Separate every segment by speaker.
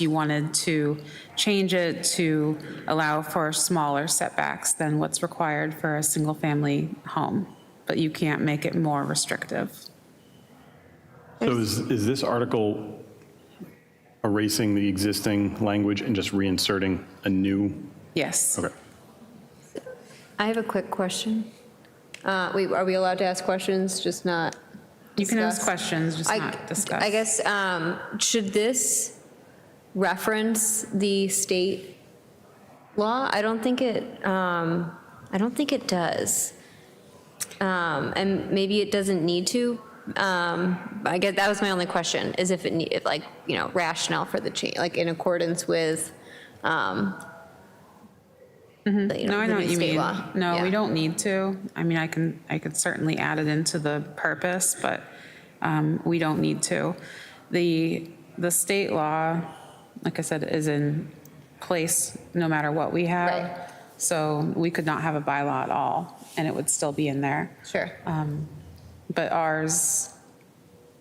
Speaker 1: you wanted to change it to allow for smaller setbacks than what's required for a single-family home, but you can't make it more restrictive.
Speaker 2: So is, is this article erasing the existing language and just reinserting a new?
Speaker 1: Yes.
Speaker 2: Okay.
Speaker 3: I have a quick question. Uh, Wait, are we allowed to ask questions, just not
Speaker 1: You can ask
Speaker 3: discuss?
Speaker 1: questions, just
Speaker 3: I-
Speaker 1: not discuss.
Speaker 3: I guess, um, should this reference the state law? I don't think it, um, I don't think it does. Um, And maybe it doesn't need to. Um, I guess that was my only question, is if it need, if like, you know, rationale for the change, like in accordance with, um, the,
Speaker 1: Mm-hmm.
Speaker 3: you
Speaker 1: No,
Speaker 3: know,
Speaker 1: I
Speaker 3: the
Speaker 1: know
Speaker 3: new
Speaker 1: what you
Speaker 3: state
Speaker 1: mean.
Speaker 3: law.
Speaker 1: No, we
Speaker 3: Yeah.
Speaker 1: don't need to. I mean, I can, I could certainly add it into the purpose, but um, we don't need to. The, the state law, like I said, is in place no matter what we
Speaker 3: Right.
Speaker 1: have. So we could not have a bylaw at all, and it would still be in there.
Speaker 3: Sure.
Speaker 1: Uh, But ours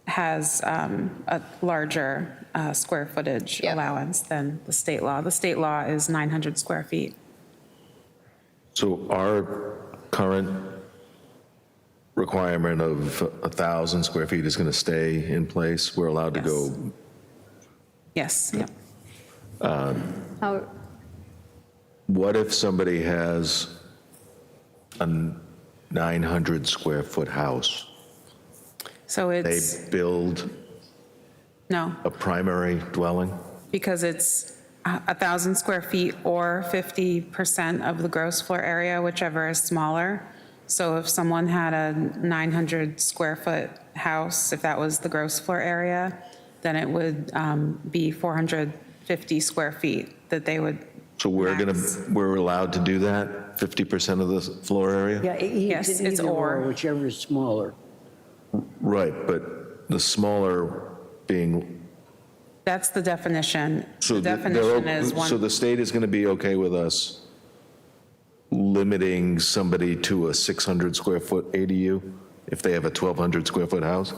Speaker 1: has um, a larger uh, square footage
Speaker 3: Yep.
Speaker 1: allowance than the state law. The state law is 900 square feet.
Speaker 4: So our current requirement of a 1,000 square feet is going to stay in place? We're allowed to go,
Speaker 1: Yes, yep.
Speaker 3: How,
Speaker 4: what if somebody has a 900 square foot house?
Speaker 1: So
Speaker 4: They
Speaker 1: it's,
Speaker 4: build
Speaker 1: no.
Speaker 4: a primary dwelling?
Speaker 1: because it's a 1,000 square feet or 50% of the gross floor area, whichever is smaller. So if someone had a 900 square foot house, if that was the gross floor area, then it would um, be 450 square feet that they would,
Speaker 4: So we're going
Speaker 1: Max.
Speaker 4: to, we're allowed to do that, 50% of the floor area?
Speaker 5: Yeah, e-
Speaker 1: Yes,
Speaker 5: either
Speaker 1: it's
Speaker 5: either
Speaker 1: or.
Speaker 5: Whichever is smaller.
Speaker 4: Right, but the smaller being,
Speaker 1: that's the definition.
Speaker 4: so
Speaker 1: The
Speaker 4: the- they're
Speaker 1: definition
Speaker 4: o-
Speaker 1: is
Speaker 4: So
Speaker 1: one,
Speaker 4: the state is going to be okay with us limiting somebody to a 600 square foot ADU if they have a 1,200 square foot house?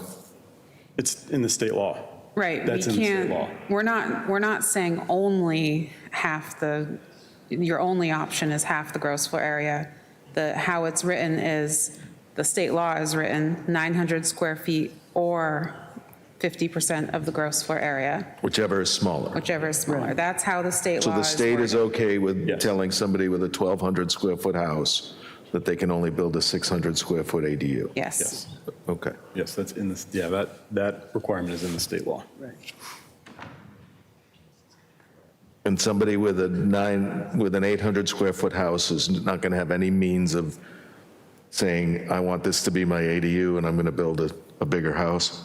Speaker 2: It's in the state law.
Speaker 1: right. We
Speaker 2: That's in the state law.
Speaker 1: can't, we're not, we're not saying only half the, your only option is half the gross floor area. The, how it's written is, the state law is written 900 square feet or 50% of the gross floor area,
Speaker 4: Whichever is smaller.
Speaker 1: whichever is smaller. That's how the state
Speaker 4: So
Speaker 1: law
Speaker 4: the
Speaker 1: is.
Speaker 4: state is
Speaker 1: worded.
Speaker 4: okay with
Speaker 2: Yes.
Speaker 4: telling somebody with a 1,200 square foot house that they can only build a 600 square foot ADU?
Speaker 1: Yes.
Speaker 2: Yes,
Speaker 4: Okay.
Speaker 2: yes, that's in the, yeah, that, that requirement is in the state law.
Speaker 4: And somebody with a nine, with an 800 square foot house is not going to have any means of saying, I want this to be my ADU and I'm going to build a, a bigger house?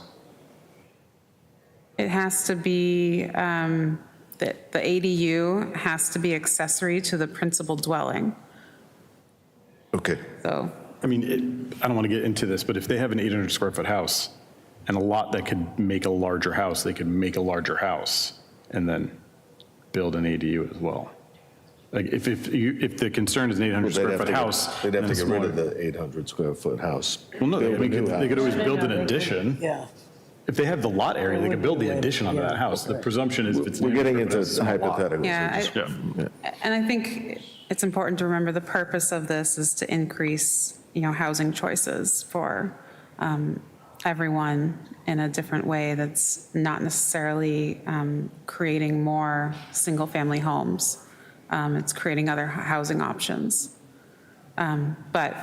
Speaker 1: It has to be, um, the the ADU has to be accessory to the principal dwelling.
Speaker 4: Okay,
Speaker 1: So
Speaker 2: I mean, it, I don't want to get into this, but if they have an 800 square foot house and a lot that could make a larger house, they could make a larger house and then build an ADU as well. Like if, if you, if the concern is an 800
Speaker 4: They'd
Speaker 2: square
Speaker 4: have
Speaker 2: foot
Speaker 4: to get-
Speaker 2: house.
Speaker 4: They'd have
Speaker 2: then
Speaker 4: to
Speaker 2: a
Speaker 4: get rid of
Speaker 2: smaller-
Speaker 4: the 800 square foot house.
Speaker 2: Well, no,
Speaker 4: Build a
Speaker 2: they
Speaker 4: new
Speaker 2: could, they could
Speaker 4: house.
Speaker 2: always build an addition.
Speaker 5: Yeah.
Speaker 2: If they have the lot area,
Speaker 4: Oh,
Speaker 2: they could build the addition onto that house. The presumption is if it's. an
Speaker 4: We're getting
Speaker 2: 800
Speaker 4: into
Speaker 2: square foot house, it's a lot.
Speaker 4: hypotheticals.
Speaker 1: Yeah,
Speaker 4: Just-
Speaker 2: Yeah.
Speaker 1: And I think it's important to remember the purpose of this is to increase, you know, housing choices for um, everyone in a different way that's not necessarily um, creating more single-family homes. Um, It's creating other h- housing options. But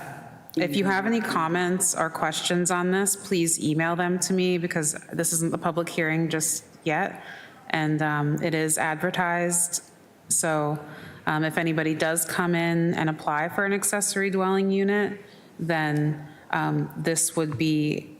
Speaker 1: if you have any comments or questions on this, please email them to me because this isn't the public hearing just yet. And um, it is advertised. So um, if anybody does come in and apply for an accessory dwelling unit, then um, this would be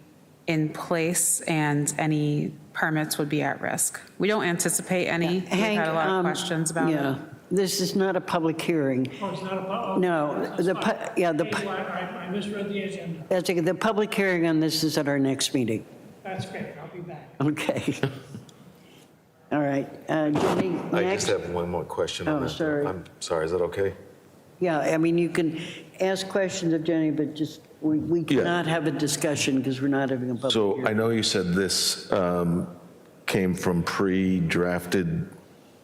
Speaker 1: in place and any permits would be at risk. We don't anticipate any. We've had a lot of questions about it.
Speaker 5: um, Yeah, this is not a public hearing.
Speaker 6: Oh, it's not a pub?
Speaker 5: No, the pu- yeah, the pu-
Speaker 6: I I misread the agenda.
Speaker 5: That's, okay. the public hearing on this is at our next meeting.
Speaker 6: That's great, I'll be back.
Speaker 5: Okay. All right, uh, Jenny,
Speaker 4: I just
Speaker 5: next?
Speaker 4: have one more question on
Speaker 5: Oh,
Speaker 4: that.
Speaker 5: sorry.
Speaker 4: I'm sorry, is that okay?
Speaker 5: Yeah, I mean, you can ask questions of Jenny, but just, we we
Speaker 4: Yeah.
Speaker 5: cannot have a discussion because we're not having a public
Speaker 4: So I
Speaker 5: hearing.
Speaker 4: know you said this um, came from pre-drafted